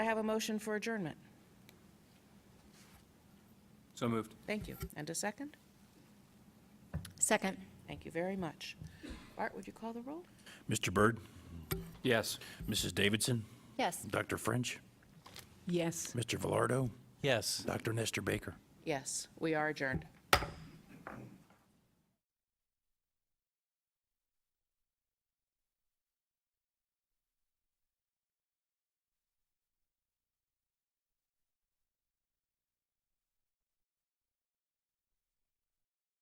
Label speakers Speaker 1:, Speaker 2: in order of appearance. Speaker 1: have a motion for adjournment?
Speaker 2: So moved.
Speaker 1: Thank you. And a second?
Speaker 3: Second.
Speaker 1: Thank you very much. Bart, would you call the roll?
Speaker 4: Mr. Byrd,
Speaker 2: Yes.
Speaker 4: Mrs. Davidson,
Speaker 3: Yes.
Speaker 4: Dr. French,
Speaker 5: Yes.
Speaker 4: Mr. Velardo,
Speaker 6: Yes.
Speaker 4: Dr. Nestor Baker.
Speaker 1: Yes, we are adjourned.